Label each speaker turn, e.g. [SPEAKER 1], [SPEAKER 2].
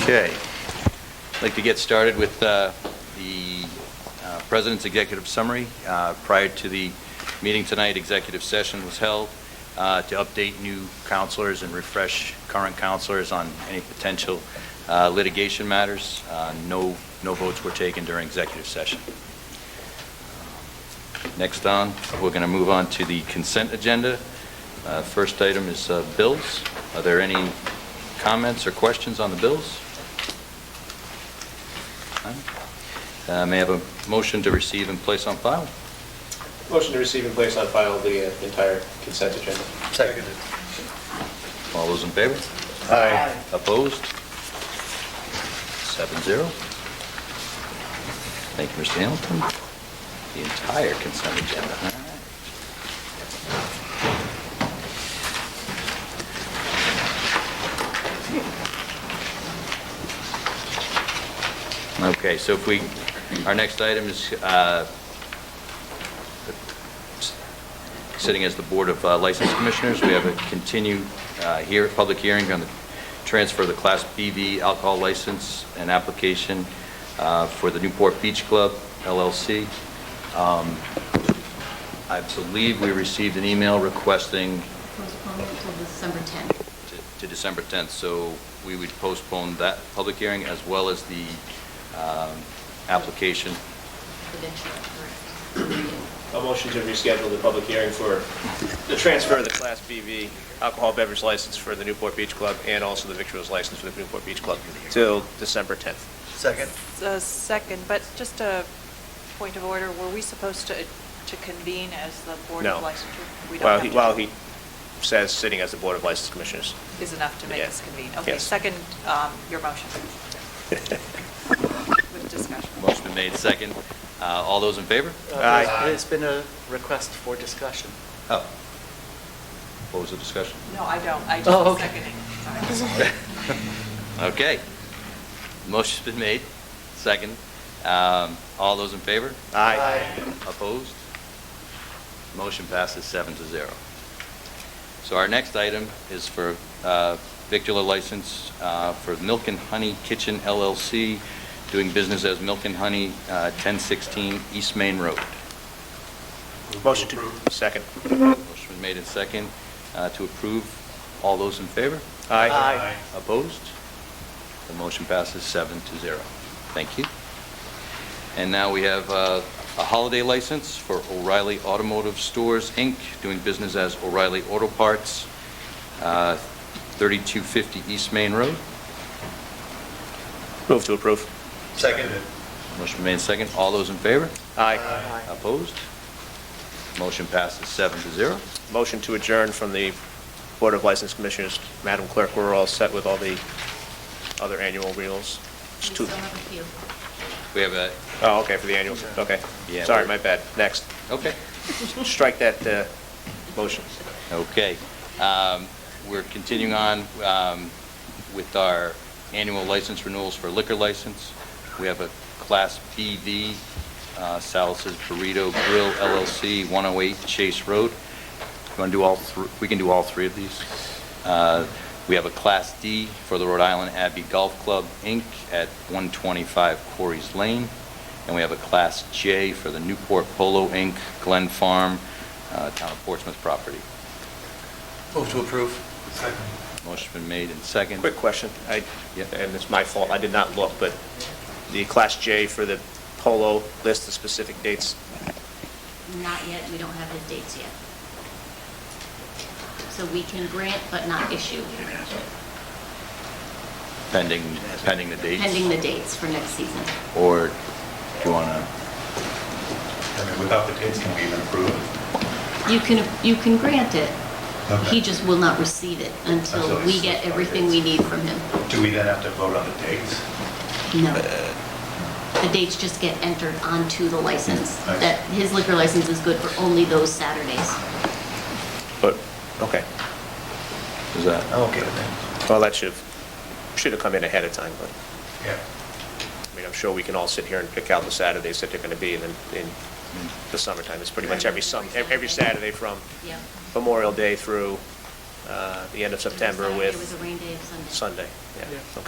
[SPEAKER 1] Okay. I'd like to get started with uh, the uh, President's Executive Summary. Uh, Prior to the meeting tonight, executive session was held uh, to update new counselors and refresh current counselors on any potential uh, litigation matters. Uh, No, no votes were taken during executive session. Next on, we're going to move on to the consent agenda. Uh, First item is uh, bills. Are there any comments or questions on the bills? None? Uh, May I have a motion to receive and place on file?
[SPEAKER 2] Motion to receive and place on file the uh, entire consent agenda.
[SPEAKER 3] Seconded.
[SPEAKER 1] All those in favor?
[SPEAKER 3] Aye.
[SPEAKER 1] Opposed? Seven zero. Thank you, Mr. Hamilton. The entire consent agenda. All right. Okay, so if we, our next item is uh, sitting as the Board of uh, License Commissioners. We have a continued uh, here, public hearing on the transfer of the Class BV alcohol license and application uh, for the Newport Beach Club LLC. Um, I believe we received an email requesting
[SPEAKER 4] Postpone until December 10th.
[SPEAKER 1] to- to December 10th, so we would postpone that public hearing as well as the um, application.
[SPEAKER 4] Eventually, correct.
[SPEAKER 2] A motion to reschedule the public hearing for the transfer of the Class BV alcohol beverage license for the Newport Beach Club and also the victuals license for the Newport Beach Club till December 10th.
[SPEAKER 3] Second?
[SPEAKER 5] A second, but just a point of order, were we supposed to, to convene as the Board
[SPEAKER 2] No.
[SPEAKER 5] of Licensure? We don't
[SPEAKER 2] While
[SPEAKER 5] have
[SPEAKER 2] he,
[SPEAKER 5] to.
[SPEAKER 2] while he says, sitting as the Board of License Commissioners.
[SPEAKER 5] Is enough to make
[SPEAKER 2] Yeah.
[SPEAKER 5] us convene. Okay,
[SPEAKER 2] Yes.
[SPEAKER 5] second, um, your motion. With discussion.
[SPEAKER 1] Motion been made, second. Uh, All those in favor?
[SPEAKER 2] Aye.
[SPEAKER 3] There's Uh, been a request for discussion.
[SPEAKER 1] Oh. What was the discussion?
[SPEAKER 5] No, I don't, I
[SPEAKER 3] Oh,
[SPEAKER 5] just
[SPEAKER 3] okay.
[SPEAKER 5] seconded. Sorry.
[SPEAKER 1] Okay. Motion's been made, second. Um, All those in favor? Opposed? Motion passes seven to zero. So our next item is for uh, victular license uh, for Milk and Honey Kitchen LLC, doing business as Milk and Honey, uh, 1016 East Main Road.
[SPEAKER 2] Motion to, second.
[SPEAKER 1] Motion been made and second uh, to approve. All those in favor?
[SPEAKER 3] Aye.
[SPEAKER 1] Opposed? The motion passes seven to zero. Thank you. And now we have uh, a holiday license for O'Reilly Automotive Stores, Inc., doing business as O'Reilly Auto Parts, uh, 3250 East Main Road.
[SPEAKER 2] Move to approve.
[SPEAKER 3] Seconded.
[SPEAKER 1] Motion made second. All those in favor?
[SPEAKER 2] Aye.
[SPEAKER 1] Opposed? Motion passes seven to zero.
[SPEAKER 2] Motion to adjourn from the Board of License Commissioners. Madam Clerk, we're all set with all the other annual renewals. It's
[SPEAKER 4] We
[SPEAKER 2] two-
[SPEAKER 4] still have a few.
[SPEAKER 1] We have a,
[SPEAKER 2] Oh, okay, for the annual, okay.
[SPEAKER 1] Yeah.
[SPEAKER 2] Sorry, my bad. Next.
[SPEAKER 1] okay.
[SPEAKER 2] Strike that uh, motion.
[SPEAKER 1] Okay. Um, We're continuing on um, with our annual license renewals for liquor license. We have a Class BV, uh, Salus's Burrito Grill LLC, 108 Chase Road. You want to do all, thr- we can do all three of these. Uh, We have a Class D for the Rhode Island Abbey Golf Club, Inc., at 125 Quarries Lane. And we have a Class J for the Newport Polo, Inc., Glen Farm, uh, Town of Portsmouth property.
[SPEAKER 3] Move to approve.
[SPEAKER 1] Motion's been made and second.
[SPEAKER 2] Quick question, I,
[SPEAKER 1] Yeah.
[SPEAKER 2] and it's my fault, I did not look, but the Class J for the polo list the specific dates,
[SPEAKER 4] Not yet, we don't have his dates yet. So we can grant but not issue,
[SPEAKER 1] Pending, pending the dates?
[SPEAKER 4] pending the dates for next season.
[SPEAKER 1] Or do you want to,
[SPEAKER 6] I mean, without the dates, can we even approve it?
[SPEAKER 4] You can, you can grant it. He
[SPEAKER 6] Okay.
[SPEAKER 4] just will not receive it until
[SPEAKER 6] Until
[SPEAKER 4] we
[SPEAKER 6] he's-
[SPEAKER 4] get everything we need from him.
[SPEAKER 6] Do we then have to vote on the dates?
[SPEAKER 4] No. The dates just get entered onto the license.
[SPEAKER 6] Nice.
[SPEAKER 4] That, his liquor license is good for only those Saturdays.
[SPEAKER 2] but, okay.
[SPEAKER 1] is that,
[SPEAKER 6] okay with that.
[SPEAKER 2] Well, that should, should have come in ahead of time, but,
[SPEAKER 6] Yeah.
[SPEAKER 2] I mean, I'm sure we can all sit here and pick out the Saturdays that they're going to be, and then in the summertime, it's pretty much every sun, every Saturday from
[SPEAKER 4] Yeah.
[SPEAKER 2] Memorial Day through uh, the end of September
[SPEAKER 4] Saturday
[SPEAKER 2] with
[SPEAKER 4] was a rain day, Sunday.
[SPEAKER 2] Sunday, yeah,
[SPEAKER 3] Yeah.
[SPEAKER 2] okay.